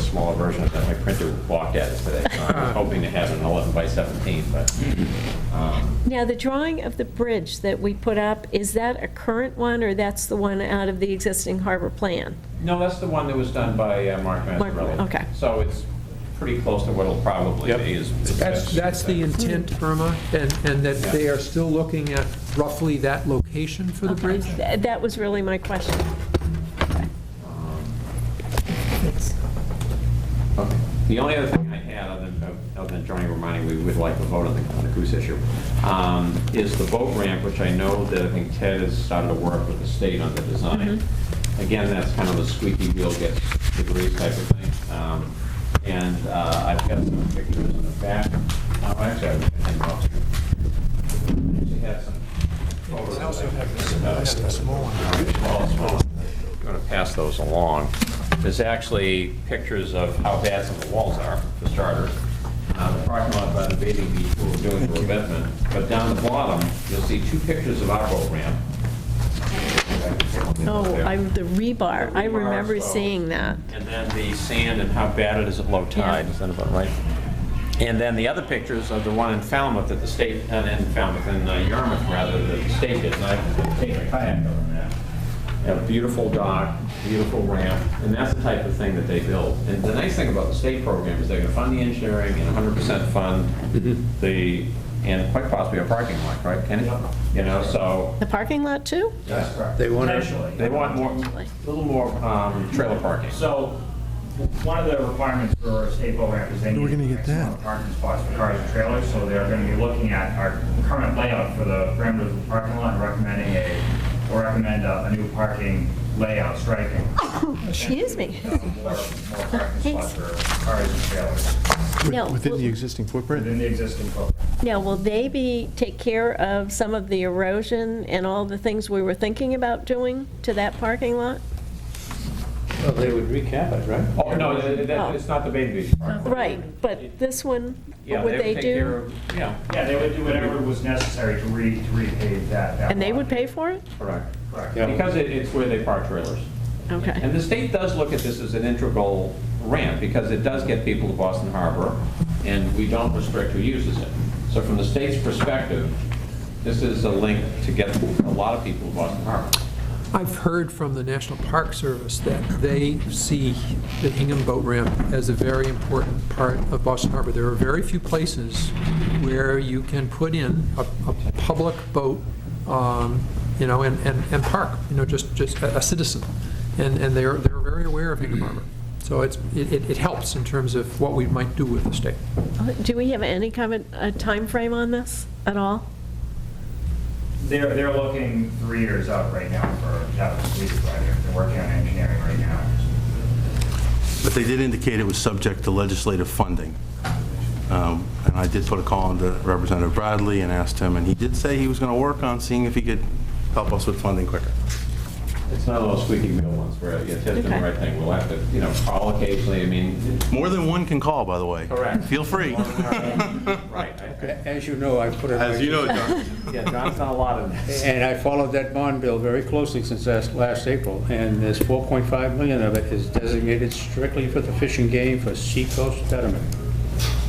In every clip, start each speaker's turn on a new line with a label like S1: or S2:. S1: smaller version of that. My printer balked at us today, so I was hoping to have an 11 by 17, but um,
S2: Now, the drawing of the bridge that we put up, is that a current one, or that's the one out of the existing harbor plan?
S1: no, that's the one that was done by uh, Mark
S2: Mark,
S1: Mazzarelli.
S2: okay.
S1: So it's pretty close to what it'll probably
S3: Yep.
S1: be. is-
S3: That's, that's the intent, Irma, and, and that they are still looking at roughly that location for the bridge?
S2: Th- That was really my question.
S1: Okay. The only other thing I had, other than, other than Johnny reminding we would like to vote on the, on the goose issue, um, is the boat ramp, which I know that I think Ted has started to work with the state on the design. Again, that's kind of a squeaky wheel gets the grease type of thing. Um, And uh, I've got some pictures in the back. Oh, actually, I think I'll- I actually have some. photos.
S4: I also have this, I have
S1: uh,
S4: this small one.
S1: Going to pass those along. There's actually pictures of how bad some of the walls are, for starters. Uh, The parking lot by the bathing beach, we're doing the revetment. But down the bottom, you'll see two pictures of our boat ramp.
S2: Oh, I, the rebar, I remember seeing that.
S1: And then the sand and how bad it is at low tide, is that about right? And then the other pictures are the one in Falmouth that the state, uh, in Falmouth, in uh, Yarmouth rather, that the state did, and I can take a kayak over that. A beautiful dock, beautiful ramp, and that's the type of thing that they build. And the nice thing about the state program is they're gonna fund the engineering and 100% fund the, and quite possibly a parking lot, right, Kenny? You know, so.
S2: The parking lot, too?
S1: That's correct.
S5: They want to,
S6: Potentially.
S1: They want more, a little more um, trailer parking.
S6: So, w- one of the requirements for a state boat ramp is they need.
S4: We're gonna get
S6: X amount
S4: that.
S6: of Parking spots for cars and trailers, so they're gonna be looking at our current layout for the perimeter of the parking lot, and recommending a, or recommend a a new parking layout striking.
S2: Excuse me.
S6: uh, More, more parking
S2: Thanks.
S6: spots for cars and trailers
S2: No,
S4: Within the
S2: will-
S4: existing footprint?
S6: within the existing footprint.
S2: now, will they be, take care of some of the erosion and all the things we were thinking about doing to that parking lot?
S5: well, they would recap it, right?
S1: Oh, no, that- that- it's not the Bain Beach Park.
S2: Right, but this one,
S1: Yeah,
S2: what would
S1: would
S2: they
S1: take care
S2: do?
S1: of, yeah,
S6: Yeah, they would do whatever was necessary to re, to repave that, that.
S2: And they
S6: lot.
S2: would pay for it?
S1: correct.
S6: Correct.
S5: Yeah.
S1: Because it- it's where they park trailers. And
S2: Okay.
S1: the state does look at this as an integral ramp, because it does get people to Boston Harbor, and we don't restrict who uses it. So from the state's perspective, this is a link to get a lot of people to Boston Harbor.
S3: I've heard from the National Park Service that they see the Hingham Boat Ramp as a very important part of Boston Harbor. There are very few places where you can put in a, a public boat, um, you know, and, and, and park, you know, just, just a a citizen. And, and they're, they're very aware of Hingham Harbor. So it's, it, it- it helps in terms of what we might do with the state.
S2: Do we have any kind of a timeframe on this at all?
S6: They're, they're looking three years out right now for that completed project. They're working on engineering right now.
S7: But they did indicate it was subject to legislative funding. Um, And I did put a call into Representative Bradley and asked him, and he did say he was going to work on seeing if he could help us with funding quicker.
S1: It's not those squeaky wheel ones where you test the
S2: Okay.
S1: right thing. We'll have to, you know, call occasionally, I mean.
S7: More than one can call, by the way.
S1: Correct.
S7: Feel free.
S1: Right. I-
S5: A- As you know, I put it.
S7: As you know, John.
S1: Yeah, John's not a lot of this.
S5: And I followed that bond bill very closely since last, last April, and there's 4.5 million of it is designated strictly for the fishing game for seacoast betterment.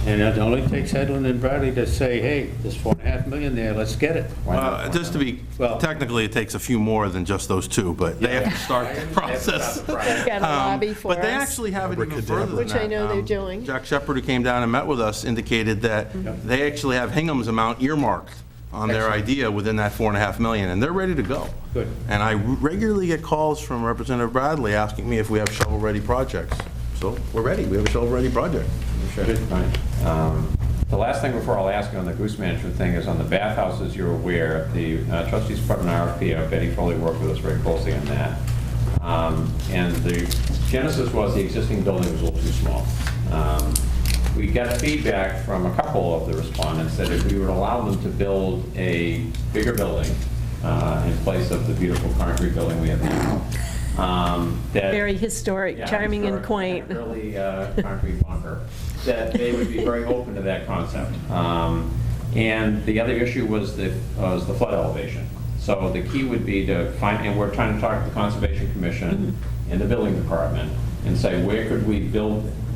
S5: And it only takes Headland and Bradley to say, hey, there's four and a half million there, let's get it.
S7: Uh, Just to be,
S5: Well-
S7: technically, it takes a few more than just those two, but they have to start the process.
S2: They've got a lobby for us.
S7: Um, But they actually have it even further than
S2: Which I
S7: that.
S2: know they're
S7: Um,
S2: doing.
S7: Jack Shepherd, who came down and met with us, indicated that they actually have Hingham's amount earmarked on their idea within that four and a half million, and they're ready to go.
S5: Good.
S7: And I regularly get calls from Representative Bradley asking me if we have shovel-ready projects. So we're ready, we have a shovel-ready project.
S1: Right. Um, The last thing before I'll ask you on the goose management thing is on the bathhouses, you're aware, the uh, trustees put an RFP out, Betty Foley worked with us very closely on that. Um, And the genesis was the existing building was a little too small. Um, We got feedback from a couple of the respondents that if we would allow them to build a bigger building uh, in place of the beautiful concrete building we have now, um, that...
S2: Very historic,
S1: Yeah,
S2: charming and
S1: sure.
S2: quaint.
S1: And a Really uh, concrete bunker, that they would be very open to that concept. Um, And the other issue was the, was the flood elevation. So the key would be to find, and we're trying to talk to the Conservation Commission and the Building Department, and say, where could we build